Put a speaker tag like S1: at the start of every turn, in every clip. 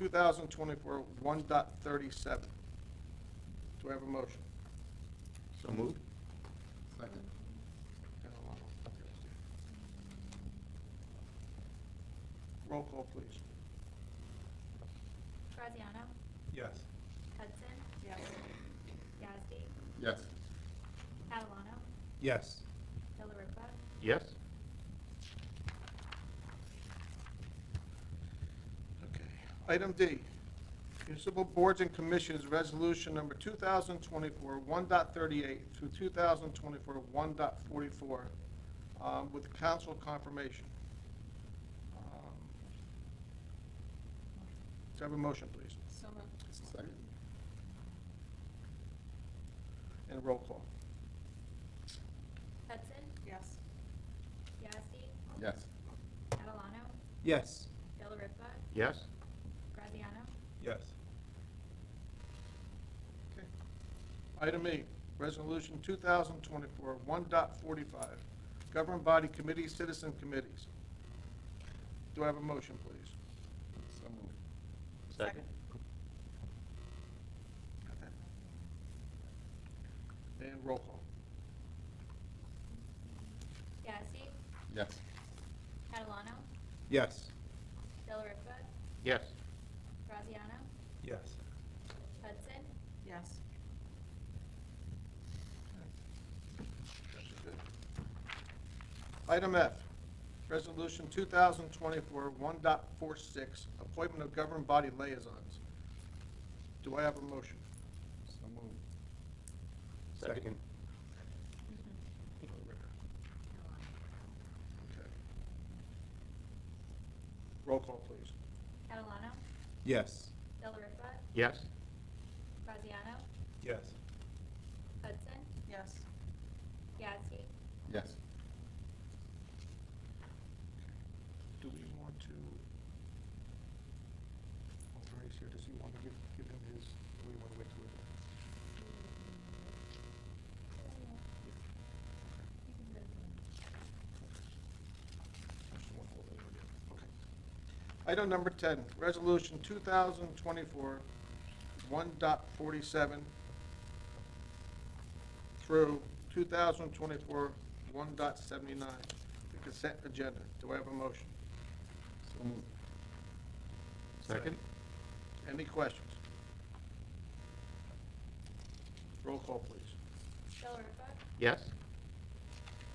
S1: 2024 1.37. Do I have a motion?
S2: So moved.
S3: Second.
S1: Roll call, please.
S4: Graziano?
S3: Yes.
S4: Hudson?
S5: yes,
S4: Yazdi?
S3: Yes.
S4: Catalano?
S3: Yes.
S4: Delariva?
S2: Yes?
S1: Okay. Item D, municipal boards and commissions, resolution number 2024 1.38 through 2024 1.44, um, with council confirmation. Um, Do I have a motion, please?
S5: so moved,
S3: Second.
S1: And roll call.
S4: Hudson?
S5: yes,
S4: Yazdi?
S3: Yes.
S4: Catalano?
S3: Yes.
S4: Delariva?
S2: Yes?
S4: Graziano?
S3: Yes.
S1: Okay. Item E, Resolution 2024 1.45, Government Body Committee, Citizen Committees. Do I have a motion, please?
S3: So moved.
S5: Second.
S1: And roll call.
S4: Yazdi?
S3: Yes.
S4: Catalano?
S3: Yes.
S4: Delariva?
S2: Yes?
S4: Graziano?
S3: Yes.
S4: Hudson?
S5: yes,
S1: Item F, Resolution 2024 1.46, Appointment of Government Body Liaisons. Do I have a motion?
S3: So moved.
S2: Second.
S1: Okay. Roll call, please.
S4: Catalano?
S3: Yes.
S4: Delariva?
S2: Yes?
S4: Graziano?
S3: Yes.
S4: Hudson?
S5: yes,
S4: Yazdi?
S3: Yes.
S1: Do we want to, oh, Bernie's here, does he want to give, give him his, do we want to wait till? we- Okay. Item number ten, resolution two thousand twenty-four, one dot forty-seven through two thousand twenty-four, one dot seventy-nine, the consent agenda. Do I have a motion?
S3: So moved.
S2: Second?
S1: Any questions? Roll call, please.
S4: Delariva?
S2: Yes?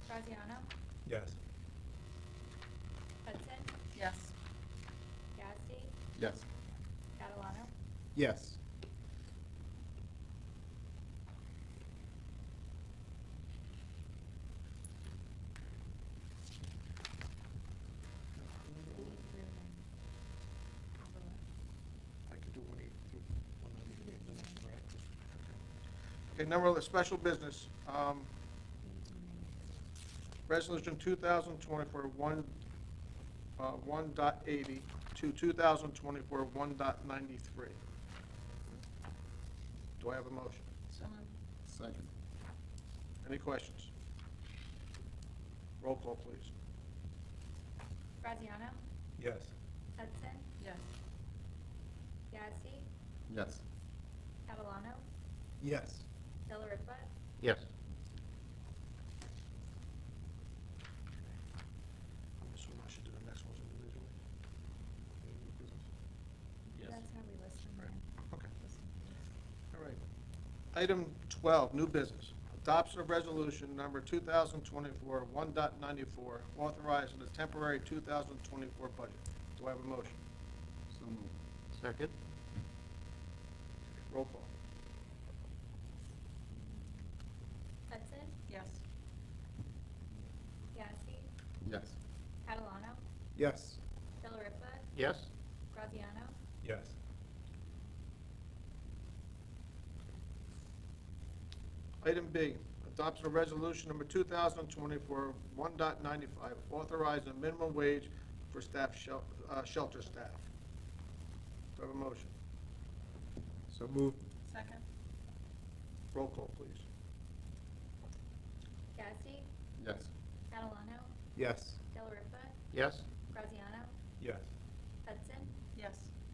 S4: Graziano?
S3: Yes.
S4: Hudson?
S5: yes,
S4: Yazdi?
S3: Yes.
S4: Catalano?
S3: Yes.
S1: I could do one eight through one ninety-eight, right? Okay, number of special business, um, resolution two thousand twenty-four one, uh, one dot eighty to two thousand twenty-four one dot ninety-three. Do I have a motion?
S5: so moved,
S3: Second.
S1: Any questions? Roll call, please.
S4: Graziano?
S3: Yes.
S4: Hudson?
S5: yes,
S4: Yazdi?
S3: Yes.
S4: Catalano?
S3: Yes.
S4: Delariva?
S2: Yes?
S1: I'm assuming I should do the next ones individually.
S4: That's how we list them.
S1: Right.
S4: yeah.
S1: Okay.
S4: List them.
S1: All right. Item 12, new business. Adoption of resolution number 2024 1.94, authorizing the temporary 2024 budget. Do I have a motion?
S3: So moved.
S2: Second?
S1: Roll call.
S4: Hudson?
S5: yes,
S4: Yazdi?
S3: Yes.
S4: Catalano?
S3: Yes.
S4: Delariva?
S2: Yes?
S4: Graziano?
S3: Yes.
S1: Item B, adoption of resolution number 2024 1.95, authorizing minimum wage for staff, shel- uh, shelter staff. Do I have a motion?
S3: So moved.
S5: second,
S1: Roll call, please.
S4: Yazdi?
S3: Yes.
S4: Catalano?
S3: Yes.
S4: Delariva?
S2: Yes?
S4: Graziano?
S3: Yes.